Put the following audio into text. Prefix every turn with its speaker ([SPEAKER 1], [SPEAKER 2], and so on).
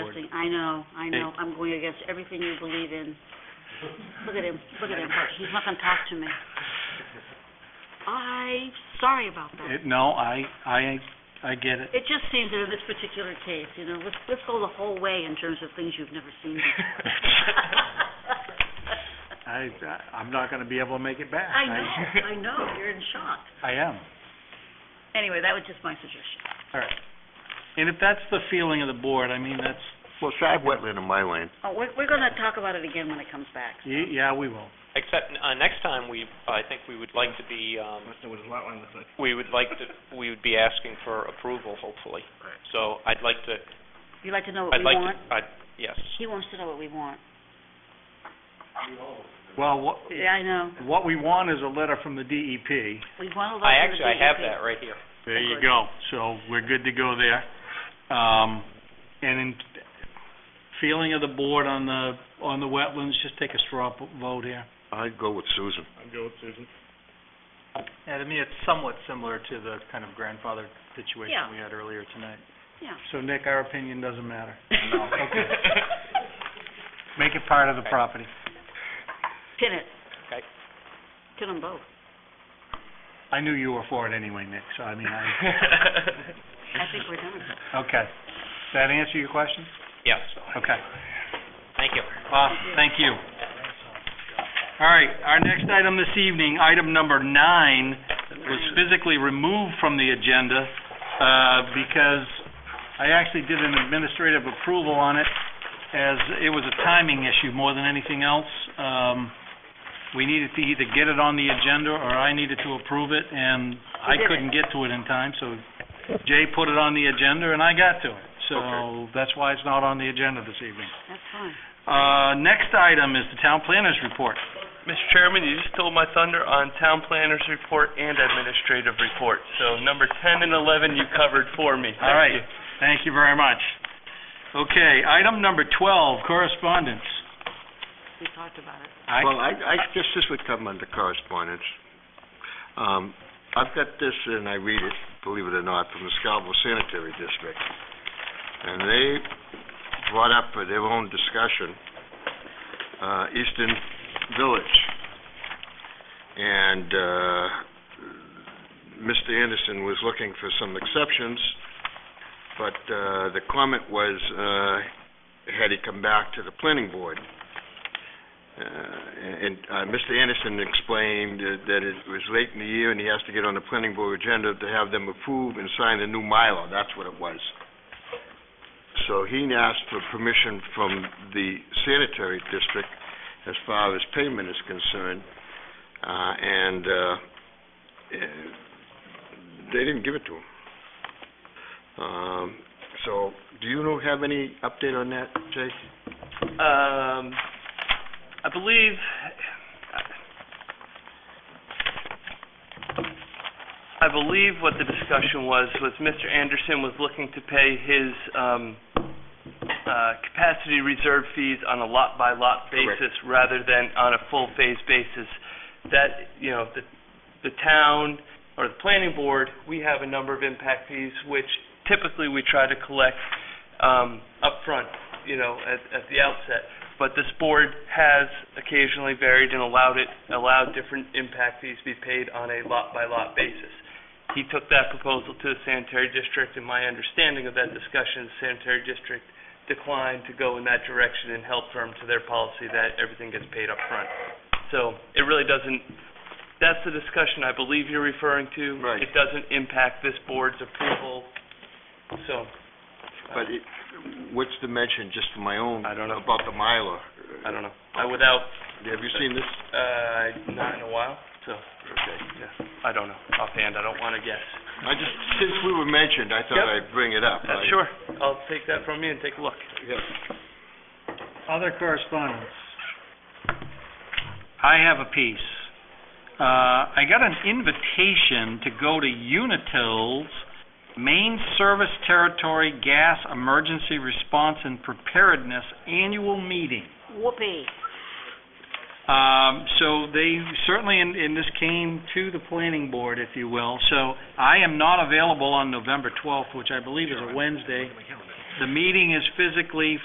[SPEAKER 1] I know, I know, I'm going against everything you believe in. Look at him, look at him, he's not gonna talk to me. I, sorry about that.
[SPEAKER 2] It- No, I, I, I get it.
[SPEAKER 1] It just seems that in this particular case, you know, let's, let's go the whole way in terms of things you've never seen before.
[SPEAKER 2] I, I'm not gonna be able to make it back.
[SPEAKER 1] I know, I know, you're in shock.
[SPEAKER 2] I am,
[SPEAKER 1] Anyway, that was just my suggestion.
[SPEAKER 2] all right. And if that's the feeling of the board, I mean, that's,
[SPEAKER 3] Well, so I have wetland in my land.
[SPEAKER 1] Oh, we're, we're gonna talk about it again when it comes back.
[SPEAKER 2] y- yeah, we will.
[SPEAKER 4] Except, uh, next time, we, I think we would like to be, um, we would like to, we would be asking for approval, hopefully. So I'd like to,
[SPEAKER 1] You'd like to know what
[SPEAKER 4] I'd
[SPEAKER 1] we
[SPEAKER 4] like
[SPEAKER 1] want?
[SPEAKER 4] to, I'd, yes.
[SPEAKER 1] He wants to know what we want.
[SPEAKER 2] Well, what,
[SPEAKER 1] Yeah, I know.
[SPEAKER 2] what we want is a letter from the E DEP.
[SPEAKER 1] We want a lot
[SPEAKER 4] I
[SPEAKER 1] of
[SPEAKER 4] actually, I have that right here.
[SPEAKER 2] There you go. So we're good to go there. Um, and in feeling of the board on the, on the wetlands, just take a straw p- vote here.
[SPEAKER 3] I'd go with Susan.
[SPEAKER 5] Yeah, to me, it's somewhat similar to the kind of grandfather
[SPEAKER 1] Yeah.
[SPEAKER 5] situation we had earlier tonight.
[SPEAKER 1] Yeah.
[SPEAKER 2] So Nick, our opinion doesn't matter.
[SPEAKER 5] No, okay.
[SPEAKER 2] Make it part of the property.
[SPEAKER 1] Pin it.
[SPEAKER 4] Okay.
[SPEAKER 1] Pin them both.
[SPEAKER 2] I knew you were for it anyway, Nick, so I mean, I,
[SPEAKER 1] I think we're done.
[SPEAKER 2] okay. Does that answer your question?
[SPEAKER 4] Yes,
[SPEAKER 2] Okay.
[SPEAKER 4] thank you.
[SPEAKER 2] Awesome, thank you. All right, our next item this evening, item number nine, was physically removed from the agenda uh, because I actually did an administrative approval on it as it was a timing issue more than anything else. Um, We needed to either get it on the agenda or I needed to approve it, and I
[SPEAKER 1] did it.
[SPEAKER 2] couldn't get to it in time, so Jay put it on the agenda and I got to it. So that's why it's not on the agenda this evening.
[SPEAKER 1] That's fine.
[SPEAKER 2] Uh, next item is the town planner's report.
[SPEAKER 6] Mr. Chairman, you just stole my thunder on town planners report and administrative report. So number 10 and 11 you covered for me.
[SPEAKER 2] All right, thank you very much. Okay, item number twelve, correspondence.
[SPEAKER 1] We talked about it.
[SPEAKER 2] I-
[SPEAKER 3] Well, I, I guess this would come under correspondence. Um, I've got this, and I read it, believe it or not, from the Scarborough Sanitary District. And they brought up for their own discussion, uh, Eastern Village. And, uh, Mr. Anderson was looking for some exceptions, but, uh, the comment was, uh, had he come back to the planning board. Uh, and uh, Mr. Anderson explained uh, that it was late in the year and he has to get on the planning board agenda to have them approve and sign the new Mylar, that's what it was. So he asked for permission from the sanitary district as far as payment is concerned, uh, and uh, eh, they didn't give it to him. Um, So, do you know- have any update on that, Jay?
[SPEAKER 6] Um, I believe, I believe what the discussion was, was Mr. Anderson was looking to pay his um, uh, capacity reserve fees on a lot-by-lot
[SPEAKER 3] Correct.
[SPEAKER 6] basis rather than on a full phase basis. That, you know, the, the town or the planning board, we have a number of impact fees, which typically we try to collect um, upfront, you know, at, at the outset. But this board has occasionally varied and allowed it, allowed different impact fees to be paid on a lot-by-lot basis. He took that proposal to the sanitary district, and my understanding of that discussion, the sanitary district declined to go in that direction and held firm to their policy that everything gets paid upfront. So it really doesn't, that's the discussion I believe you're referring to.
[SPEAKER 3] Right.
[SPEAKER 6] It doesn't impact this board's approval, so.
[SPEAKER 3] But it, what's the mention, just for my own?
[SPEAKER 6] I don't know.
[SPEAKER 3] About the Mylar?
[SPEAKER 6] I don't know. I, Uh, without,
[SPEAKER 3] Have you seen this?
[SPEAKER 6] uh, not in a while, so,
[SPEAKER 3] Okay.
[SPEAKER 6] yeah, I don't know. Offhand, I don't want to guess.
[SPEAKER 3] I just, since we were mentioned, I thought
[SPEAKER 6] Yep.
[SPEAKER 3] I'd bring it up.
[SPEAKER 6] Uh,
[SPEAKER 3] I-
[SPEAKER 6] Sure, I'll take that from you and take a look.
[SPEAKER 3] yeah.
[SPEAKER 2] Other correspondence. I have a piece. Uh, I got an invitation to go to Unitil's Main Service Territory Gas Emergency Response and Preparedness Annual Meeting.
[SPEAKER 1] Whoopee.
[SPEAKER 2] Um, so they certainly, and, and this came to the planning board, if you will, so I am not available on November twelfth, which I believe is a Wednesday. The meeting is physically